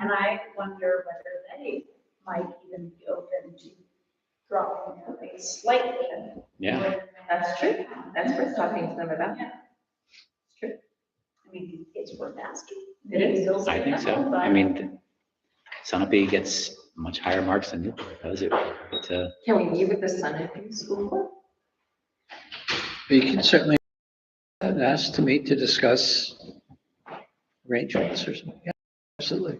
And I wonder whether they might even be open to dropping their rates slightly. Yeah, That's true. That's worth talking to them about. Yeah. It's true. I mean, it's worth asking. It is. Feels I like think so. that, I but- mean, Sunapee gets much higher marks than Newport does. It- uh, It's a, Can we meet with the Sun and School Board? You can certainly ask to meet to discuss arrangements or something. Yeah, Absolutely.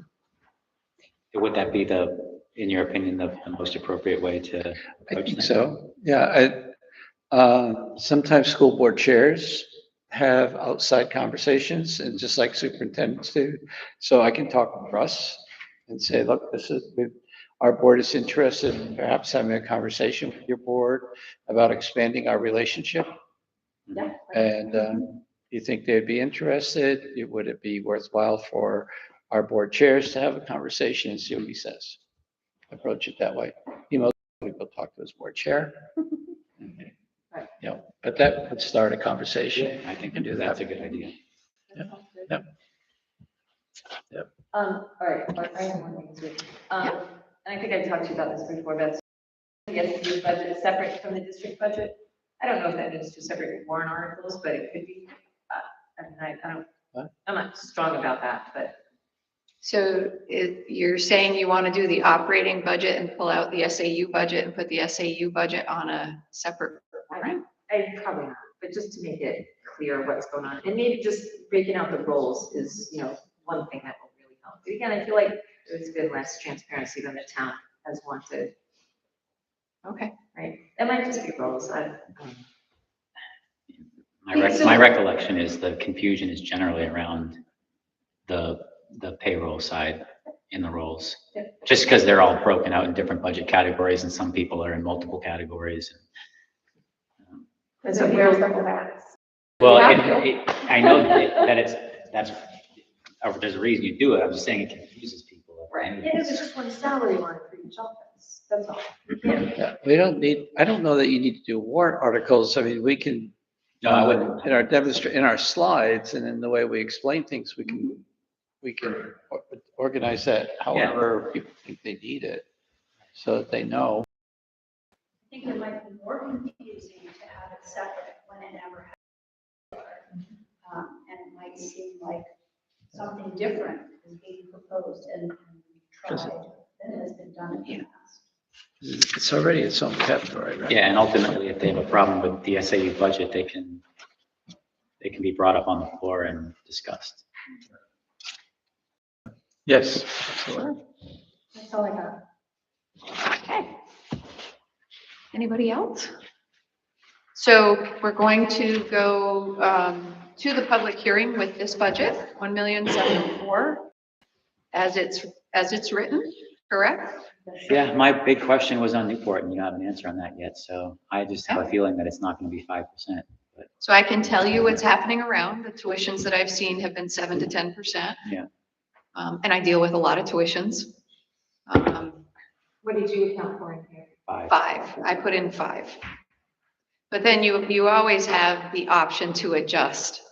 would that be the, in your opinion, the the most appropriate way to? I approach think that? so. Yeah, I, uh, sometimes school board chairs have outside conversations and just like superintendents do. So I can talk with Russ and say, look, this is, we- our board is interested in perhaps having a conversation with your board about expanding our relationship. Yeah. And um, you think they'd be interested? It- Would it be worthwhile for our board chairs to have a conversation and see what he says? Approach it that way. He most likely will talk to his board chair. Right. You know, but that would start a conversation. I think that's a good idea. Yeah. Yep. Yep. Um, all right, or I have one thing too. Um, and I think I talked to you about this before, but yes, the budget is separate from the district budget. I don't know if that means two separate warrant articles, but it could be. Uh, I mean, I, I What? don't, I'm not strong about that, but So it, you're saying you want to do the operating budget and pull out the SAU budget and put the SAU budget on a separate I, warrant? I probably not. But just to make it clear what's going on, and maybe just breaking out the roles is, you know, one thing that will really help. But Again, I feel like there's been less transparency than the town has wanted. Okay, Right, that might just be roles, I, um, My rec, my recollection is the confusion is generally around the, the payroll side in the roles. Just because they're all broken out in different budget categories and some people are in multiple categories. that's So what where's the we're, whole ass? Well, Yeah. it- it- I know that that it's, that's, uh, there's a reason you do it. I'm just saying it confuses people. right, yeah, there's just one salary line for each office, that's all. Yeah, We don't need, I don't know that you need to do warrant articles. I mean, we can, No, I wouldn't. in our demonstrate, in our slides and in the way we explain things, we can, we can or- organize that however people think they need it. So that they know. I think it might be more confusing to have it separate when it never happened. Um, And it might seem like something different is being proposed and and Does tried than has been done in the past. It's already its own category, right? Yeah, and ultimately, if they have a problem with the SAU budget, they can, they can be brought up on the floor and discussed. Yes. That's all I got. okay. Anybody else? So we're going to go, um, to the public hearing with this budget, one million seven oh four, as it's, as it's written, correct? Yeah, my big question was on Newport, and you don't have an answer on that yet, so I just have a feeling that it's not gonna be five percent. So I can tell you what's happening around. The tuitions that I've seen have been seven to ten percent. Yeah. Um, and I deal with a lot of tuitions. Um, What did you account for in here? Five. Five, I put in five. But then you, you always have the option to adjust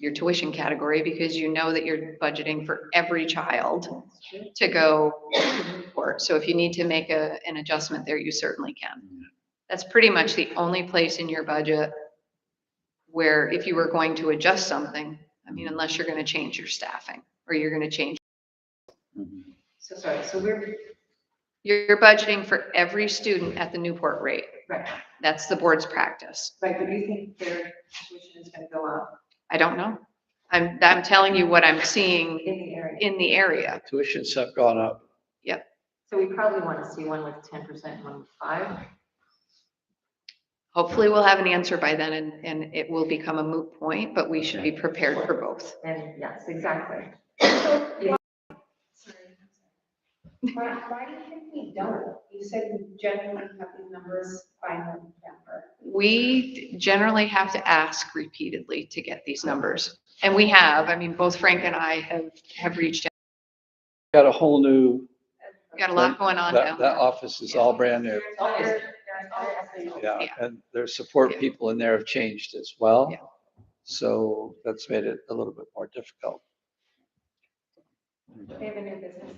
your tuition category because you know that you're budgeting for every child to go to Newport. So if you need to make a, an adjustment there, you certainly can. That's pretty much the only place in your budget where if you were going to adjust something, I mean, unless you're gonna change your staffing or you're gonna change, Mhm. So sorry, so we're, you're budgeting for every student at the Newport rate. right, That's the board's practice. right, but do you think their tuition is gonna go up I don't know. I'm, I'm telling you what I'm seeing in the area? in the area. Tuitions have gone up. So we probably wanna see one with ten percent, one with five. Hopefully we'll have an answer by then and, and it will become a moot point, but we should be prepared for both. And yes, exactly. Why, why do you think we don't? You said we generally have these numbers by November. We generally have to ask repeatedly to get these numbers. And we have, I mean, both Frank and I have, have reached, out. Got a whole new, We've got a lot going on that, that now. office is all brand new. Always. Yeah, Yeah. and their support Yeah. people in there have changed as well. Yeah. So that's made it a little bit more difficult. They have a new business